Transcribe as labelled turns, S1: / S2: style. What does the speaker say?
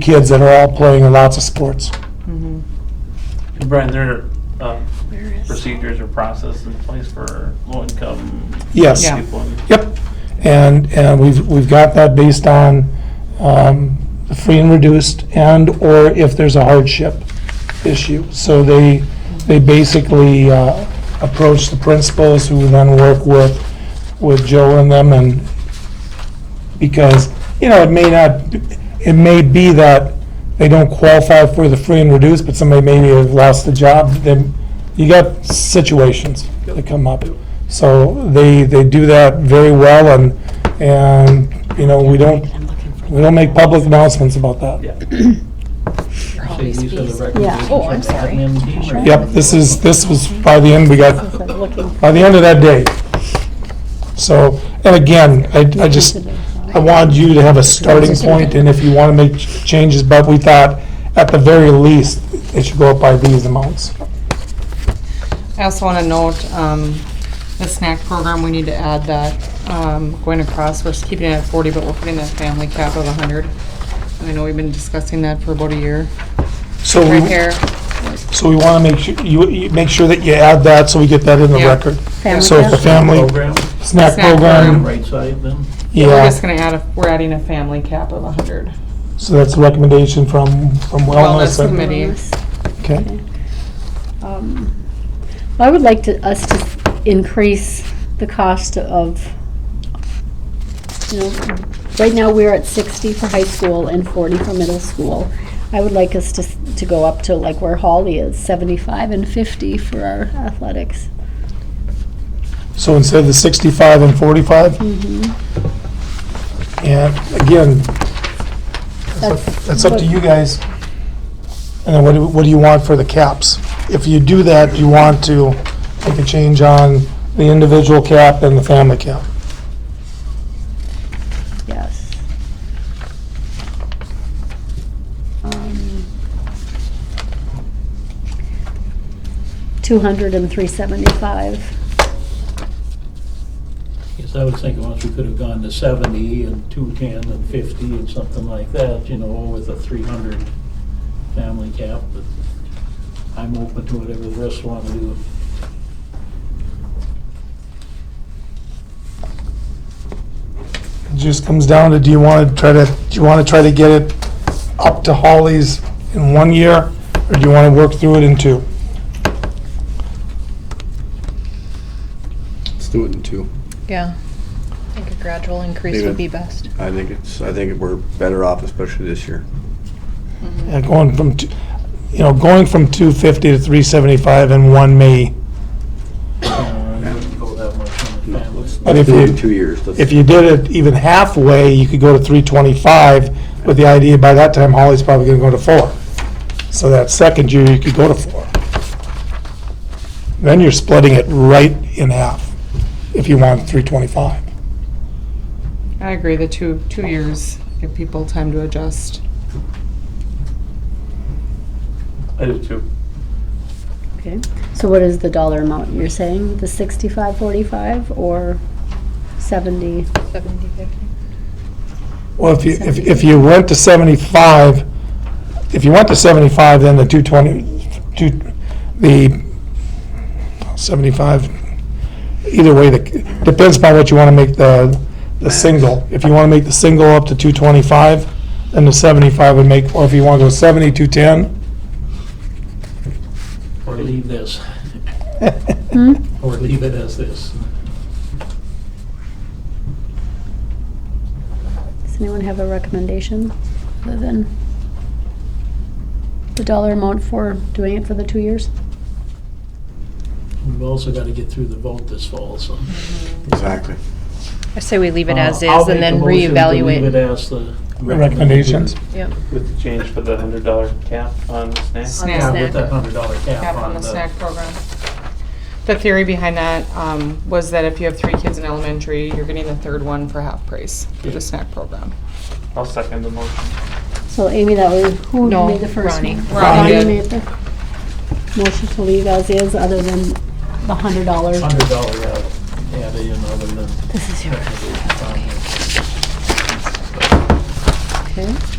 S1: kids that are all playing in lots of sports.
S2: Brian, there are uh, procedures or process in place for low-income
S1: Yes.
S3: Yeah.
S2: people. and-
S1: Yep. And, and we've, we've got that based on um, the free and reduced and/or if there's a hardship issue. So they, they basically uh, approach the principals who then work with, with Joe and them and, because, you know, it may not, it may be that they don't qualify for the free and reduced, but somebody maybe has lost the job, then you got situations that come up. So they, they do that very well and, and, you know, we don't, we don't make public announcements about that.
S2: Yeah.
S4: So these are the
S5: Yeah.
S4: recommendations
S5: Oh, I'm
S4: of the
S5: sorry.
S4: admin team, or-
S1: Yep, this is, this was by the end, we got, by the end of that day. So, and again, I, I just, I wanted you to have a starting point, and if you want to make ch- changes, but we thought, at the very least, it should go up by these amounts.
S3: I also want to note, um, the snack program, we need to add that, um, going across, we're keeping it at forty, but we're putting that family cap of hundred. And I know we've been discussing that for about a year.
S1: So
S3: Right
S1: we,
S3: here,
S1: so we want to make sure, you, you make sure that you add that, so we get that in the
S3: Yeah.
S1: record. So if the family
S4: Program,
S1: snack
S4: on
S3: Snack
S4: the
S1: program,
S3: program.
S4: right side then?
S3: we're
S1: yeah,
S3: just gonna add, a we're adding a family cap of hundred.
S1: so that's a recommendation from, from wellness.
S3: Wellness
S1: and-
S3: committee.
S1: Okay,
S5: Um, I would like to, us to increase the cost of, you know, right now we're at sixty for high school and forty for middle school. I would like us to, s- to go up to like where Holly is, seventy-five and fifty for our athletics.
S1: so instead of the sixty-five and forty-five, and again, That's up to you guys. And then what do, what do you want for the caps? If you do that, do you want to make a change on the individual cap and the family cap?
S5: Yes. Um, 200 and 375.
S4: Yes, I was thinking once we could have gone to seventy and two ten and fifty and something like that, you know, with a three hundred family cap, but I'm open to whatever the rest want to do.
S1: It just comes down to, do you want to try to, do you want to try to get it up to Holly's in one year? Or do you want to work through it in two?
S6: Let's do it in two.
S7: Yeah, I think a gradual increase
S6: Leave
S7: would
S6: it.
S7: be best.
S6: I think it's, I think we're better off, especially this year.
S1: Yeah, going from, two- you know, going from 250 to 375 in one may,
S4: Uh, I wouldn't go that much on the
S6: No,
S4: family.
S6: let's,
S1: But
S6: let's
S1: if
S6: do it
S1: you-
S6: in two years. Let's-
S1: if you did it even halfway, you could go to 325 with the idea by that time Holly's probably going to go to four. So that second year, you could go to four. Then you're splitting it right in half if you want 325.
S3: I agree, the two, two years, give people time to adjust.
S2: I do too.
S5: Okay. So what is the dollar amount you're saying? The 65, 45 or 70?
S7: Seventy fifty.
S1: Well, if you, if if you went to 75, if you went to 75, then the 220, two, the 75, either way, the- depends upon what you want to make the, the single. If you want to make the single up to 225, then the 75 would make, or if you want to go 70, 210,
S4: Or leave this.
S5: Hmm?
S1: Hmm?
S4: Or leave it as this.
S5: Does anyone have a recommendation other than the dollar amount for doing it for the two years?
S4: We've also got to get through the vote this fall, so.
S6: Exactly.
S7: I say we leave it as
S4: Uh, I'll
S7: is
S4: make a
S7: and then
S4: motion to Leave it
S7: reevaluate.
S4: as the.
S1: recommendations.
S7: Yep.
S2: With the change for the hundred dollar cap on snacks.
S3: Snack.
S4: Yeah, with that hundred dollar
S3: cap
S4: cap
S3: on the snack
S4: the.
S3: program. The theory behind that um, was that if you have three kids in elementary, you're getting the third one for half price through the snack program.
S2: I'll second the motion.
S5: So Amy, that was, who
S7: No,
S5: made the first
S7: Ronnie.
S5: one?
S3: Ronnie did.
S5: made the motion to leave as is, other than the hundred dollars.
S4: Hundred dollar, yeah, add in other than.
S5: This is yours. Okay.